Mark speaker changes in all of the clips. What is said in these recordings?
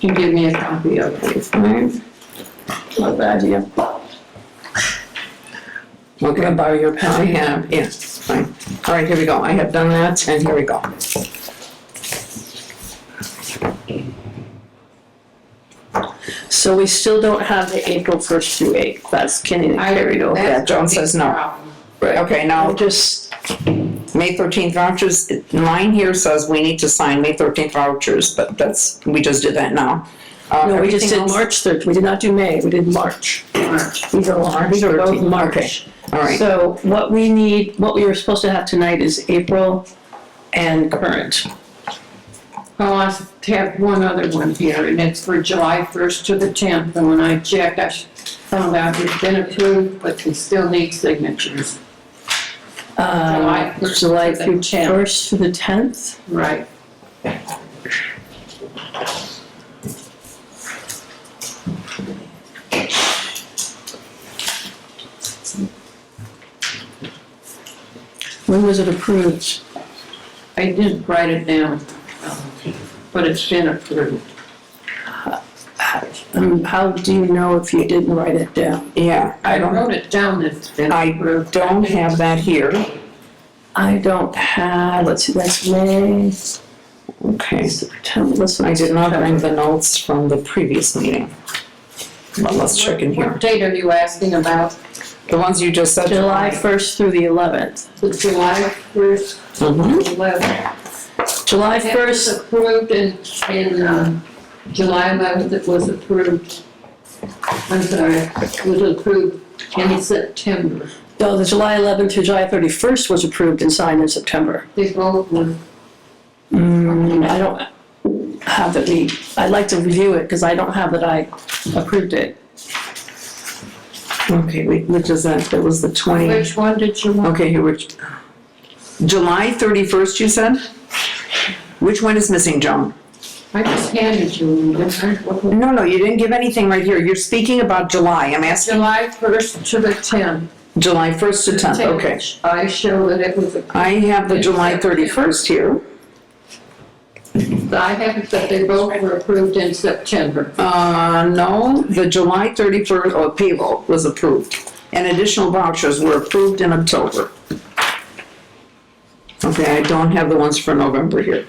Speaker 1: you give me a copy of these things? What bad idea. Well, can I borrow your pen? I have, yes, it's fine. All right, here we go. I have done that, and here we go.
Speaker 2: So we still don't have the April first through eighth, that's getting carried over.
Speaker 1: Yeah, Joan says no. Okay, now,
Speaker 2: I'm just,
Speaker 1: May thirteenth vouchers, mine here says we need to sign May thirteenth vouchers, but that's, we just did that now. Uh,
Speaker 2: no, we just
Speaker 1: everything
Speaker 2: did
Speaker 1: else-
Speaker 2: March third, we did not do May, we did March. March. These are all, these are both
Speaker 1: 13th,
Speaker 2: March.
Speaker 1: All right,
Speaker 2: So what we need, what we were supposed to have tonight is April and current.
Speaker 3: I want to have one other one here, and it's for July 1st to the 10th, and when I checked, I found out it's been approved, but we still need signatures.
Speaker 2: Uh,
Speaker 3: July 1st to
Speaker 2: July
Speaker 3: the
Speaker 2: through
Speaker 3: 10th.
Speaker 2: first to the tenth.
Speaker 3: Right.
Speaker 2: When was it approved?
Speaker 3: I didn't write it down, but it's been approved.
Speaker 2: Um, how do you know if you didn't write it down?
Speaker 1: yeah, I
Speaker 3: I
Speaker 1: don't,
Speaker 3: wrote it down that it's been
Speaker 1: I
Speaker 3: approved.
Speaker 1: don't have that here.
Speaker 2: I don't have, let's see, that's May,
Speaker 1: Okay.
Speaker 2: September, let's see.
Speaker 1: I did not bring the notes from the previous meeting. But let's check in here.
Speaker 3: What date are you asking about?
Speaker 1: The ones you just said.
Speaker 2: July first through the eleventh.
Speaker 3: The July 1st,
Speaker 1: Mhm.
Speaker 3: 11th.
Speaker 2: July
Speaker 3: That was
Speaker 2: first,
Speaker 3: approved in, in, um, July 11th, it was approved, I'm sorry, it was approved in September.
Speaker 2: no, the July eleventh through July thirty-first was approved and signed in September.
Speaker 3: They both were,
Speaker 2: Mm, I don't have that we, I'd like to review it, because I don't have that I approved it.
Speaker 1: Okay, wait, which is that? That was the twenty,
Speaker 3: which one did you want?
Speaker 1: okay, here, which, July thirty-first, you said? Which one is missing, Joan?
Speaker 3: I just handed you, one.
Speaker 1: No, no, you didn't give anything right here. You're speaking about July. I'm asking
Speaker 3: July 1st to the 10th.
Speaker 1: July first to tenth, okay.
Speaker 3: I show that it was, approved.
Speaker 1: I have the July thirty-first here.
Speaker 3: I have it that they both were approved in September.
Speaker 1: Uh, no, the July thirty-first, oh, payroll was approved, and additional vouchers were approved in October. Okay, I don't have the ones for November here,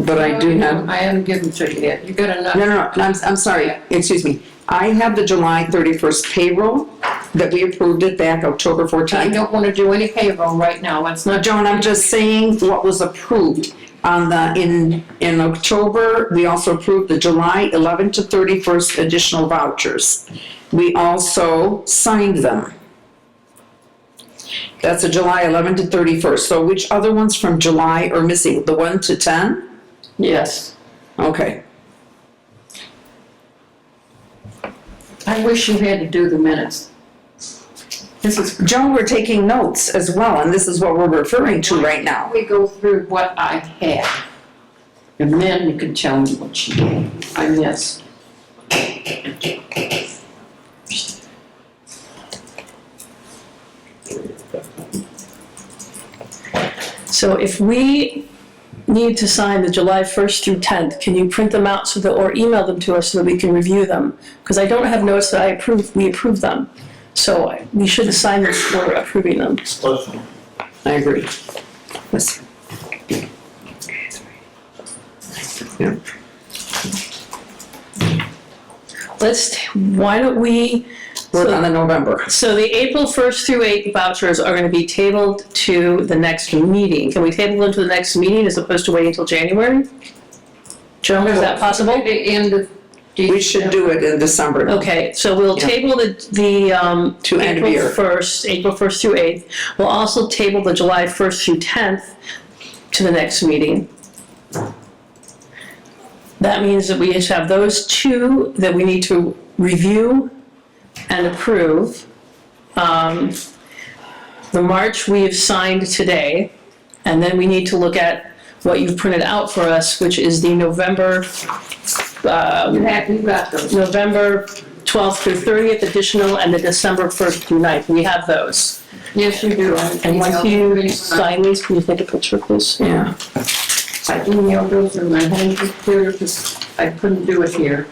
Speaker 1: but I do have,
Speaker 3: I haven't given to you yet, you got
Speaker 1: no, no,
Speaker 3: enough.
Speaker 1: no, I'm, I'm sorry, excuse me. I have the July thirty-first payroll that we approved it back October
Speaker 3: I
Speaker 1: fourteenth.
Speaker 3: don't want to do any payroll right now, it's not.
Speaker 1: Joan, I'm just saying what was approved on the, in, in October, we also approved the July 11 to 31st additional vouchers. We also signed them. That's a July 11 to 31st. So which other ones from July are missing? The 1 to 10?
Speaker 2: Yes.
Speaker 1: Okay.
Speaker 3: I wish you had to do the minutes. This is,
Speaker 1: Joan, we're taking notes as well, and this is what we're referring to right now.
Speaker 3: we go through what I have, and then you can tell me what you, I missed.
Speaker 2: So if we need to sign the July first through tenth, can you print them out so that, or email them to us so that we can review them? Because I don't have notes that I approve, we approve them. So I- we should assign them for approving them.
Speaker 1: I agree. Yes. Yeah.
Speaker 2: Let's, t- why don't we,
Speaker 1: Work on the November.
Speaker 2: so the April first through eighth vouchers are gonna be tabled to the next meeting. Can we table them to the next meeting as opposed to waiting until January? Joan, is that possible?
Speaker 3: The end of.
Speaker 1: We should do it in December.
Speaker 2: Okay, so we'll
Speaker 1: Yeah.
Speaker 2: table the, the, um.
Speaker 1: To end of year.
Speaker 2: April first, April first through eighth. We'll also table the July first through tenth to the next meeting. That means that we just have those two that we need to review and approve. Um, the March we have signed today, and then we need to look at what you've printed out for us, which is the November, um,
Speaker 3: You have, you got those.
Speaker 2: November 12th through 30th additional and the December 1st through 9th. We have those.
Speaker 3: Yes, you do. I
Speaker 2: And once
Speaker 3: emailed
Speaker 2: you
Speaker 3: these-
Speaker 2: sign these, can you take a picture, please?
Speaker 1: Yeah.
Speaker 3: I emailed those in my home computer, 'cause I couldn't do it here.